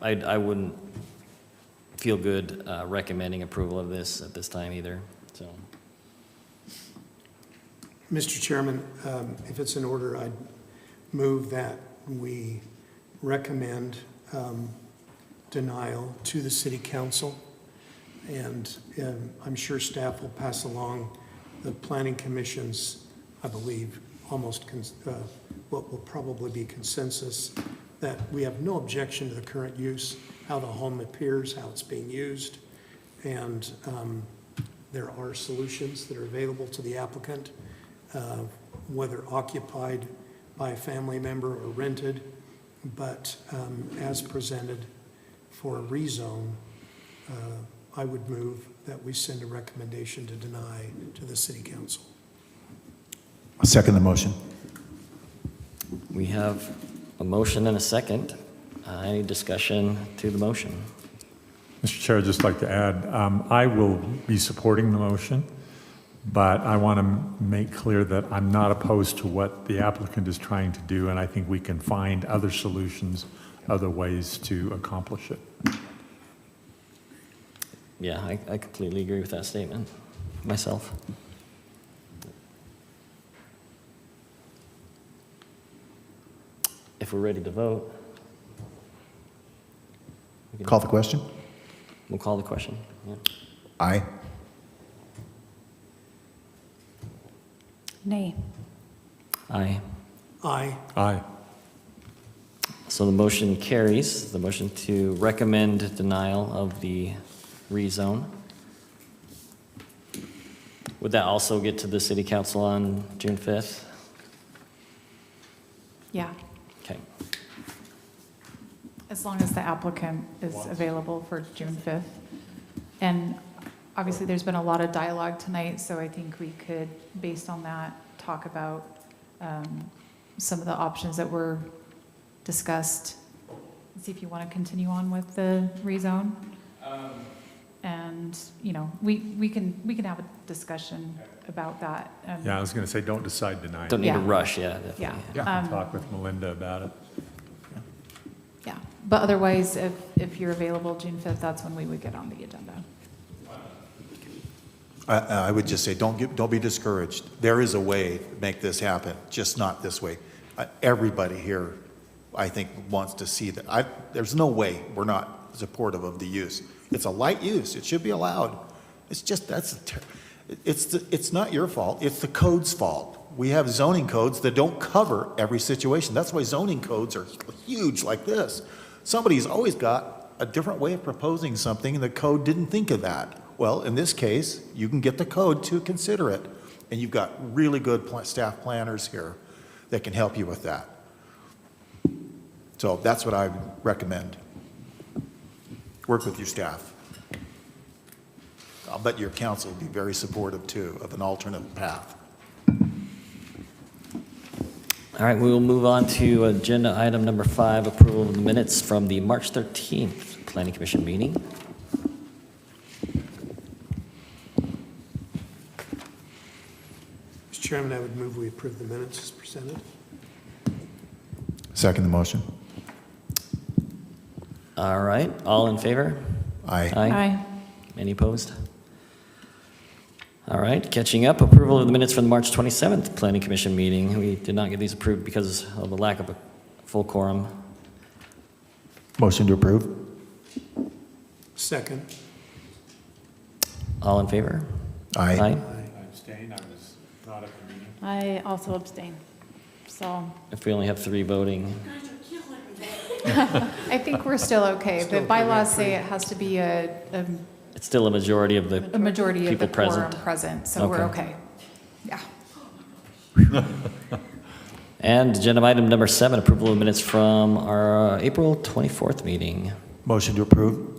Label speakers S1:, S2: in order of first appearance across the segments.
S1: I, Uh, I wouldn't feel good uh, recommending approval of this at this time either, so.
S2: Mr. Chairman, um, if it's in order, I'd move that we recommend um, denial to the city council. And um, I'm sure staff will pass along the planning commission's, I believe, almost cons- uh, what will probably be consensus, that we have no objection to the current use, how the home appears, how it's being used. And um, there are solutions that are available to the applicant uh, whether occupied by a family member or rented, but um, as presented for a rezone, uh, I would move that we send a recommendation to deny to the city council.
S3: I Second the motion.
S1: We have a motion and a second. Uh, Any discussion to the motion?
S4: Mr. Chair, I'd just like to add, um, I will be supporting the motion, but I want to make clear that I'm not opposed to what the applicant is trying to do, and I think we can find other solutions, other ways to accomplish it.
S1: Yeah, I, I completely agree with that statement, myself. If we're ready to vote,
S3: Call the question?
S1: we'll call the question. Yeah.
S3: Aye.
S5: Nay.
S1: Aye.
S2: Aye,
S4: Aye.
S1: So the motion carries, the motion to recommend denial of the rezone. Would that also get to the city council on June 5th?
S5: Yeah,
S1: Okay,
S5: as long as the applicant is available for June 5th. And obviously, there's been a lot of dialogue tonight, so I think we could, based on that, talk about um, some of the options that were discussed. See if you want to continue on with the rezone. And, you know, we, we can, we can have a discussion about that. um,
S4: Yeah, I was going to say, don't decide tonight.
S1: don't need to
S5: Yeah.
S1: rush, yeah, definitely.
S5: Yeah.
S4: Yeah,
S5: Um,
S4: talk with Melinda about it.
S5: Yeah, but otherwise, if, if you're available June 5th, that's when we would get on the agenda.
S6: I, I would just say, don't get, don't be discouraged. There is a way to make this happen, just not this way. Uh, Everybody here, I think, wants to see that. I, there's no way we're not supportive of the use. It's a light use, it should be allowed. It's just, that's, a ter- it's, the- it's not your fault, it's the code's fault. We have zoning codes that don't cover every situation. That's why zoning codes are huge like this. Somebody's always got a different way of proposing something, and the code didn't think of that. Well, in this case, you can get the code to consider it, and you've got really good pla- staff planners here that can help you with that. So that's what I recommend. Work with your staff. I'll bet your council will be very supportive, too, of an alternate path.
S1: All right, we will move on to agenda item number five, approval of the minutes from the March 13th Planning Commission meeting.
S2: Mr. Chairman, I would move we approve the minutes as presented.
S6: Second the motion.
S1: All right, all in favor?
S6: Aye.
S1: Any opposed? All right, catching up, approval of the minutes from the March 27th Planning Commission meeting. We did not get these approved because of the lack of a full quorum.
S3: Motion to approve?
S2: Second,
S1: All in favor?
S2: aye,
S4: I abstain, I was not at the meeting.
S7: I also abstain. So
S1: If we only have three voting,
S5: I think we're still okay. The
S2: Still
S5: bylaws
S2: three.
S5: say it has to be a, a-
S1: it's still a majority of
S5: a
S1: the,
S5: majority of the
S1: People present.
S5: quorum present, so we're
S1: Okay.
S5: okay. Yeah.
S1: and agenda item number seven, approval of minutes from our uh, April 24th meeting.
S3: Motion to approve?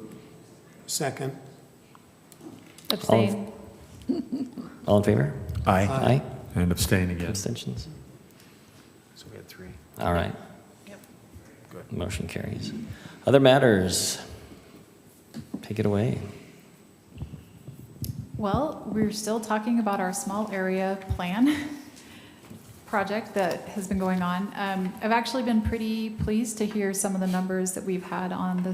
S2: second,
S7: abstain.
S1: All in favor?
S3: Aye.
S1: Aye.
S4: And abstain again.
S1: Abstentions?
S6: So we had three.
S1: All right.
S6: Good.
S1: Motion carries. Other matters? Take it away.
S5: Well, we're still talking about our small area plan project that has been going on. Um, I've actually been pretty pleased to hear some of the numbers that we've had on the